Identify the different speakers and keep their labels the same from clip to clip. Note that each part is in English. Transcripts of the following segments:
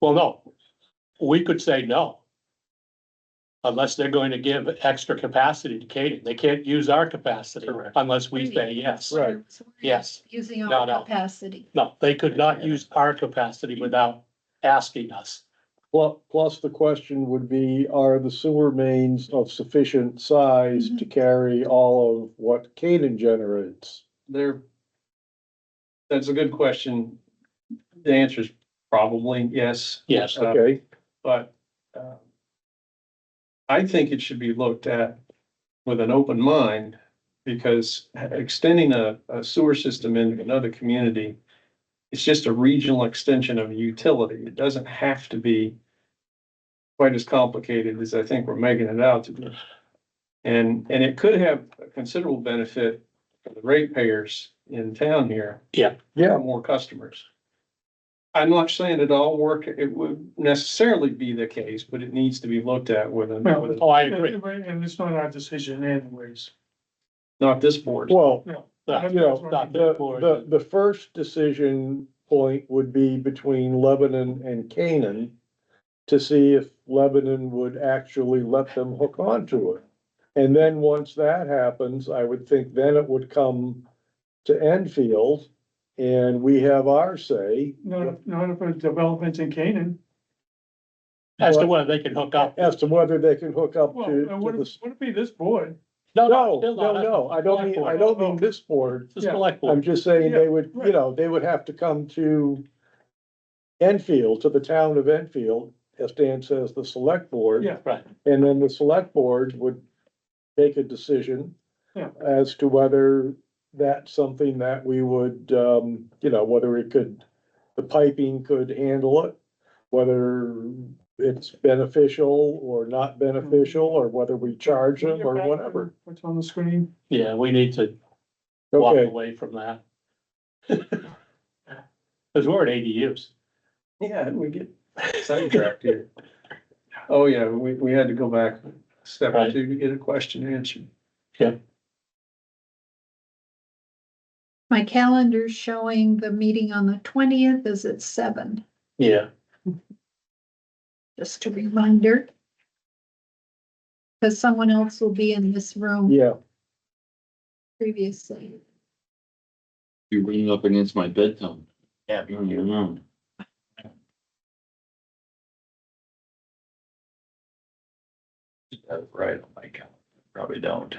Speaker 1: Well, no, we could say no. Unless they're going to give extra capacity to Katie. They can't use our capacity
Speaker 2: Correct.
Speaker 1: unless we say yes.
Speaker 2: Right.
Speaker 3: So we're
Speaker 1: Yes.
Speaker 3: Using
Speaker 1: No,
Speaker 3: our
Speaker 1: no.
Speaker 3: capacity.
Speaker 1: No, they could not use our capacity without asking us.
Speaker 2: Plus, plus the question would be, are the sewer mains of sufficient size to carry all of what Canaan generates?
Speaker 4: There. That's a good question. The answer is probably yes,
Speaker 1: Yes,
Speaker 4: Uh,
Speaker 2: Okay,
Speaker 4: but, um. I think it should be looked at with an open mind, because extending a, a sewer system into another community. It's just a regional extension of a utility. It doesn't have to be. Quite as complicated as I think we're making it out to be. And, and it could have a considerable benefit for the ratepayers in town here.
Speaker 1: Yeah.
Speaker 2: Yeah.
Speaker 4: More customers. I'm not saying it all work, it would necessarily be the case, but it needs to be looked at with a, with a-
Speaker 1: oh, I agree.
Speaker 5: And it's not our decision anyways.
Speaker 4: not this board.
Speaker 2: well,
Speaker 1: No,
Speaker 2: you know,
Speaker 1: not
Speaker 2: the,
Speaker 1: before
Speaker 2: the,
Speaker 1: the-
Speaker 2: the first decision point would be between Lebanon and Canaan to see if Lebanon would actually let them hook onto it. And then once that happens, I would think then it would come to Enfield and we have our say.
Speaker 5: Not, if- not if a development's in Canaan.
Speaker 1: As to whether they can hook up.
Speaker 2: as to whether they can hook up
Speaker 5: Well, uh,
Speaker 2: to,
Speaker 5: it
Speaker 2: to
Speaker 5: wouldn't,
Speaker 2: this.
Speaker 5: wouldn't be this board.
Speaker 1: No,
Speaker 2: No,
Speaker 1: still
Speaker 2: no,
Speaker 1: not.
Speaker 2: no, I don't mean, I don't
Speaker 1: Oh.
Speaker 2: mean this board.
Speaker 1: It's the select
Speaker 2: I'm
Speaker 1: board.
Speaker 2: just saying they would,
Speaker 5: Yeah,
Speaker 2: you
Speaker 5: right.
Speaker 2: know, they would have to come to Enfield, to the town of Enfield, as Dan says, the select board.
Speaker 5: Yeah.
Speaker 1: Right.
Speaker 2: And then the select board would make a decision
Speaker 5: Yeah.
Speaker 2: as to whether that's something that we would, um, you know, whether it could, the piping could handle it, whether it's beneficial or not beneficial, or whether we charge them or whatever.
Speaker 5: What's on the screen?
Speaker 1: Yeah, we need to walk
Speaker 2: Okay,
Speaker 1: away from that. Cause we're at ADUs.
Speaker 4: Yeah, we get sidetracked here. Oh, yeah, we, we had to go back a step or
Speaker 1: Right.
Speaker 4: two to get a question answered.
Speaker 3: My calendar's showing the meeting on the twentieth is at seven,
Speaker 1: Yeah,
Speaker 3: just a reminder. Cause someone else will be in this room
Speaker 2: yeah,
Speaker 3: previously.
Speaker 6: You're bringing up against my bedtime. Yeah. Right on my calendar, probably don't.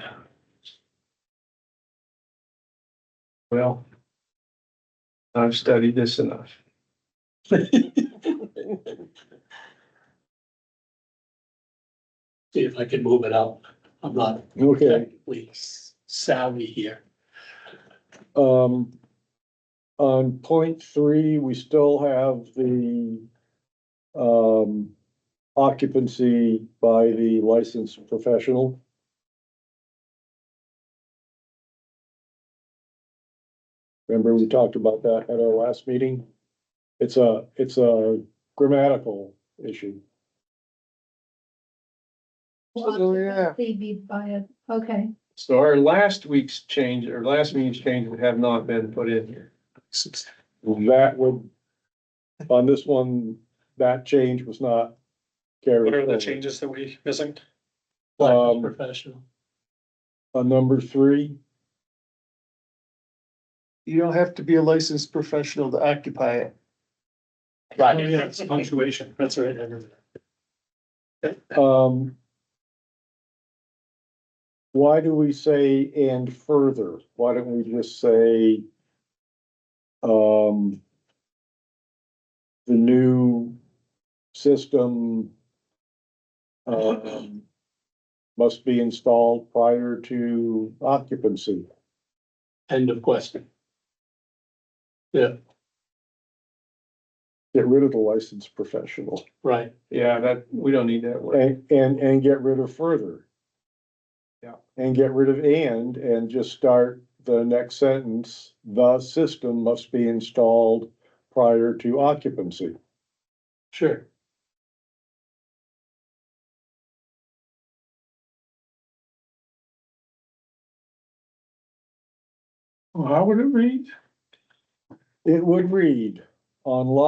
Speaker 4: Well. I've studied this enough.
Speaker 1: see if I can move it out. I'm not
Speaker 2: okay.
Speaker 1: technically savvy here.
Speaker 2: Um, on point three, we still have the, um, occupancy by the licensed professional. Remember, we talked about that at our last meeting? It's a, it's a grammatical issue. Oh,
Speaker 4: So, yeah.
Speaker 3: They be by it, okay.
Speaker 4: So our last week's change, or last meeting's change would have not been put in here.
Speaker 2: That would, on this one, that change was not carried. forward.
Speaker 4: that we missing?
Speaker 2: Um,
Speaker 1: Licensed professional.
Speaker 2: On number three.
Speaker 7: You don't have to be a licensed professional to occupy it.
Speaker 1: Right.
Speaker 5: it's punctuation. That's right.
Speaker 2: Um. Why do we say and further? Why don't we just say? Um. The new system. Um. Must be installed prior to occupancy.
Speaker 1: End of question.
Speaker 2: Get rid of the licensed professional
Speaker 1: Right.
Speaker 4: Yeah, that, we don't need that word.
Speaker 2: and, and, and get rid of further.
Speaker 4: Yeah.
Speaker 2: And get rid of and, and just start the next sentence, the system must be installed prior to occupancy.
Speaker 1: Sure.
Speaker 5: How would it read?
Speaker 2: It would read, on lot